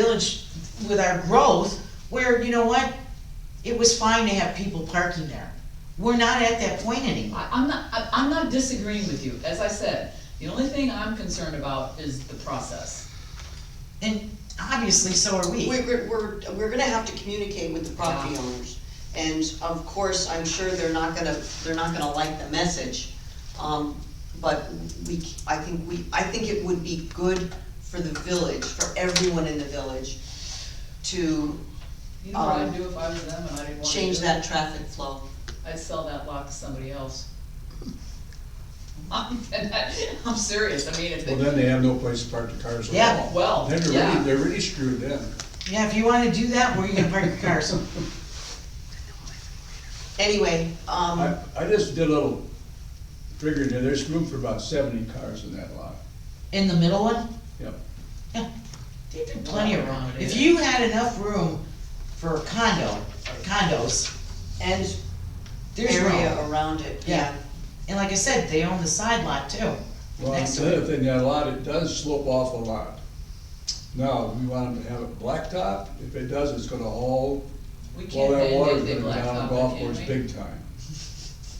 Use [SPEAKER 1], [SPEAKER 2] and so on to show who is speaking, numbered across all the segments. [SPEAKER 1] village with our growth, where, you know what? It was fine to have people parking there. We're not at that point anymore.
[SPEAKER 2] I, I'm not, I- I'm not disagreeing with you, as I said, the only thing I'm concerned about is the process.
[SPEAKER 1] And obviously, so are we.
[SPEAKER 3] We- We're, we're, we're gonna have to communicate with the property
[SPEAKER 2] Yeah.
[SPEAKER 3] owners. And of course, I'm sure they're not gonna, they're not gonna like the message. Um, but we, c- I think we, I think it would be good for the village, for everyone in the village to
[SPEAKER 2] You know what I'd
[SPEAKER 3] Um,
[SPEAKER 2] do if I was them and I didn't want to
[SPEAKER 3] change
[SPEAKER 2] do it?
[SPEAKER 3] that traffic flow.
[SPEAKER 2] I'd sell that lot to somebody else. I'm, I'm serious, I mean, if
[SPEAKER 4] Well,
[SPEAKER 2] they,
[SPEAKER 4] then they have no place to park the cars at
[SPEAKER 1] Yeah.
[SPEAKER 4] all.
[SPEAKER 2] well,
[SPEAKER 4] Then they're really,
[SPEAKER 2] yeah,
[SPEAKER 4] they're really screwed then.
[SPEAKER 1] Yeah, if you wanna do that, where are you gonna park your cars?
[SPEAKER 3] Anyway, um,
[SPEAKER 4] I, I just did a little figuring there, there's room for about seventy cars in that lot.
[SPEAKER 1] In the middle one?
[SPEAKER 4] Yep.
[SPEAKER 1] Yeah, there'd be plenty of room. If you had enough room for a condo, or condos,
[SPEAKER 3] and
[SPEAKER 1] there's
[SPEAKER 3] area
[SPEAKER 1] room.
[SPEAKER 3] around it,
[SPEAKER 1] Yeah.
[SPEAKER 3] yeah.
[SPEAKER 1] And like I said, they own the side lot too.
[SPEAKER 4] Well,
[SPEAKER 1] Next
[SPEAKER 4] the other thing, that lot, it does slope off a lot. Now, we want them to have it blacktop, if it does, it's gonna all,
[SPEAKER 2] we
[SPEAKER 4] all
[SPEAKER 2] can't,
[SPEAKER 4] that water's
[SPEAKER 2] they, they, they
[SPEAKER 4] gonna go down the
[SPEAKER 2] blacktop
[SPEAKER 4] golf
[SPEAKER 2] it,
[SPEAKER 4] course
[SPEAKER 2] can't we?
[SPEAKER 4] big time.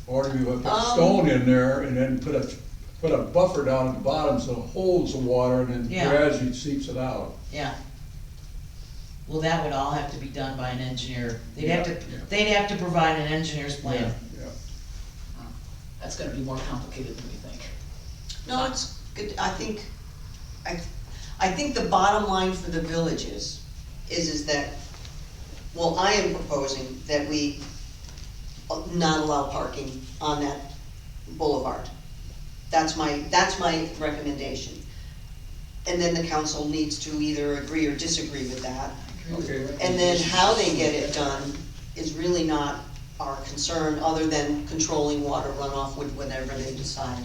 [SPEAKER 4] Or do we put
[SPEAKER 3] Um,
[SPEAKER 4] stone in there and then put a, put a buffer down at the bottom so it holds the water and
[SPEAKER 1] Yeah.
[SPEAKER 4] then gradually seeps it out.
[SPEAKER 1] Yeah. Well, that would all have to be done by an engineer. They'd have to,
[SPEAKER 4] Yeah, yeah.
[SPEAKER 1] they'd have to provide an engineer's plan.
[SPEAKER 4] Yeah.
[SPEAKER 2] That's gonna be more complicated than we think.
[SPEAKER 3] No, it's good, I think, I, I think the bottom line for the village is, is, is that, well, I am proposing that we not allow parking on that boulevard. That's my, that's my recommendation. And then the council needs to either agree or disagree with that.
[SPEAKER 4] Okay.
[SPEAKER 3] And then how they get it done is really not our concern, other than controlling water runoff with whatever they decide.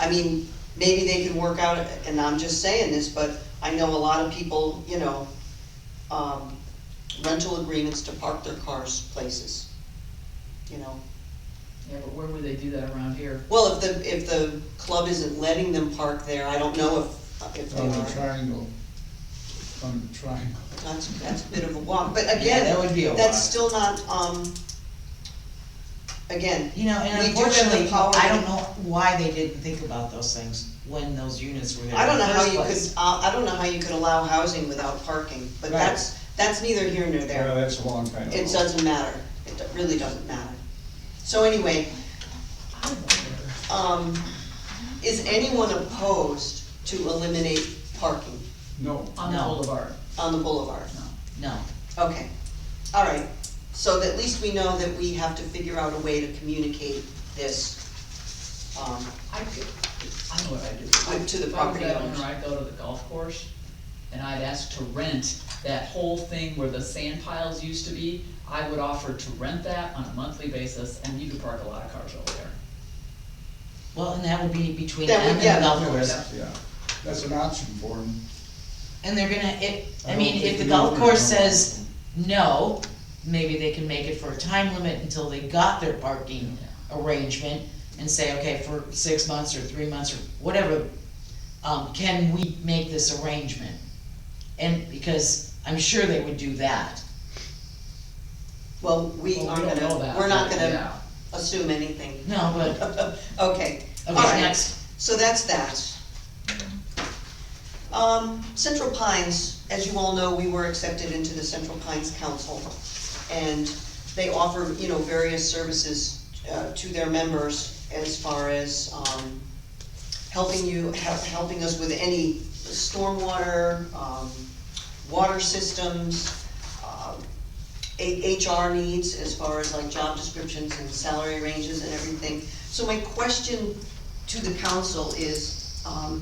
[SPEAKER 3] I mean, maybe they can work out, and I'm just saying this, but I know a lot of people, you know, um, rental agreements to park their cars places, you know.
[SPEAKER 2] Yeah, but where would they do that around here?
[SPEAKER 3] Well, if the, if the club isn't letting them park there, I don't know if, if they
[SPEAKER 4] On the
[SPEAKER 3] are.
[SPEAKER 4] triangle, on the triangle.
[SPEAKER 3] That's, that's a bit of a walk, but
[SPEAKER 1] Yeah,
[SPEAKER 3] again,
[SPEAKER 1] that would be a
[SPEAKER 3] That's
[SPEAKER 1] lot.
[SPEAKER 3] still not, um, again,
[SPEAKER 1] You know, and
[SPEAKER 3] We do have the
[SPEAKER 1] unfortunately,
[SPEAKER 3] power
[SPEAKER 1] I
[SPEAKER 3] to-
[SPEAKER 1] don't know why they didn't think about those things when those units were there.
[SPEAKER 3] I don't
[SPEAKER 1] in the
[SPEAKER 3] know how
[SPEAKER 1] first
[SPEAKER 3] you could, uh,
[SPEAKER 1] place.
[SPEAKER 3] I, I don't know how you could allow housing without parking, but
[SPEAKER 1] Right.
[SPEAKER 3] that's, that's neither here nor
[SPEAKER 4] Yeah,
[SPEAKER 3] there.
[SPEAKER 4] that's a long time.
[SPEAKER 3] It
[SPEAKER 4] ago.
[SPEAKER 3] doesn't matter, it do- really doesn't matter. So anyway,
[SPEAKER 2] I wonder.
[SPEAKER 3] um, is anyone opposed to eliminate parking
[SPEAKER 4] No,
[SPEAKER 2] On the
[SPEAKER 1] No.
[SPEAKER 2] boulevard,
[SPEAKER 3] on the boulevard?
[SPEAKER 2] no.
[SPEAKER 1] No,
[SPEAKER 3] Okay, all right, so that at least we know that we have to figure out a way to communicate this, um,
[SPEAKER 2] I could, I know what I'd do.
[SPEAKER 3] Go to
[SPEAKER 2] If I
[SPEAKER 3] the
[SPEAKER 2] was
[SPEAKER 3] property
[SPEAKER 2] that
[SPEAKER 3] owners.
[SPEAKER 2] owner, I'd go to the golf course, and I'd ask to rent that whole thing where the sand piles used to be. I would offer to rent that on a monthly basis, and you could park a lot of cars over there.
[SPEAKER 1] well, and that would be between
[SPEAKER 3] That
[SPEAKER 1] them
[SPEAKER 3] would-
[SPEAKER 1] and
[SPEAKER 3] yeah.
[SPEAKER 1] the golf
[SPEAKER 4] Yeah,
[SPEAKER 1] course.
[SPEAKER 4] that's- yeah, that's an option for them.
[SPEAKER 1] And they're gonna, if, I
[SPEAKER 4] don't
[SPEAKER 1] mean,
[SPEAKER 4] think
[SPEAKER 1] if the
[SPEAKER 4] we
[SPEAKER 1] golf
[SPEAKER 4] would
[SPEAKER 1] course
[SPEAKER 4] know.
[SPEAKER 1] says no, maybe they can make it for a time limit until they got their parking arrangement and say, okay, for six months or three months or whatever, um, can we make this arrangement? And, because I'm sure they would do that.
[SPEAKER 3] well, we
[SPEAKER 2] Well,
[SPEAKER 3] aren't
[SPEAKER 2] don't know
[SPEAKER 3] gonna,
[SPEAKER 2] that,
[SPEAKER 3] we're not
[SPEAKER 2] but
[SPEAKER 3] gonna
[SPEAKER 2] yeah.
[SPEAKER 3] assume anything.
[SPEAKER 1] No, but,
[SPEAKER 3] Okay, all
[SPEAKER 1] okay,
[SPEAKER 3] right,
[SPEAKER 1] next,
[SPEAKER 3] so that's that. Um, Central Pines, as you all know, we were accepted into the Central Pines Council, and they offer, you know, various services uh, to their members as far as, um, helping you, hel- helping us with any stormwater, um, water systems, um, A- HR needs as far as like job descriptions and salary ranges and everything. So my question to the council is, um,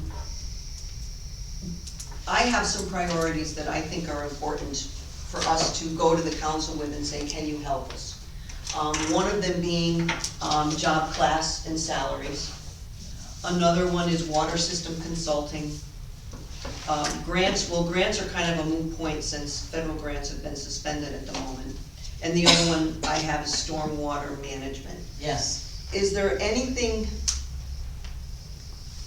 [SPEAKER 3] I have some priorities that I think are important for us to go to the council with and say, can you help us? Um, one of them being, um, job class and salaries. Another one is water system consulting. Um, grants, well, grants are kind of a moot point since federal grants have been suspended at the moment. And the other one I have is stormwater management.
[SPEAKER 1] yes.
[SPEAKER 3] Is there anything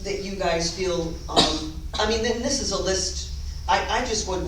[SPEAKER 3] that you guys feel, um, I mean, then this is a list I, I just would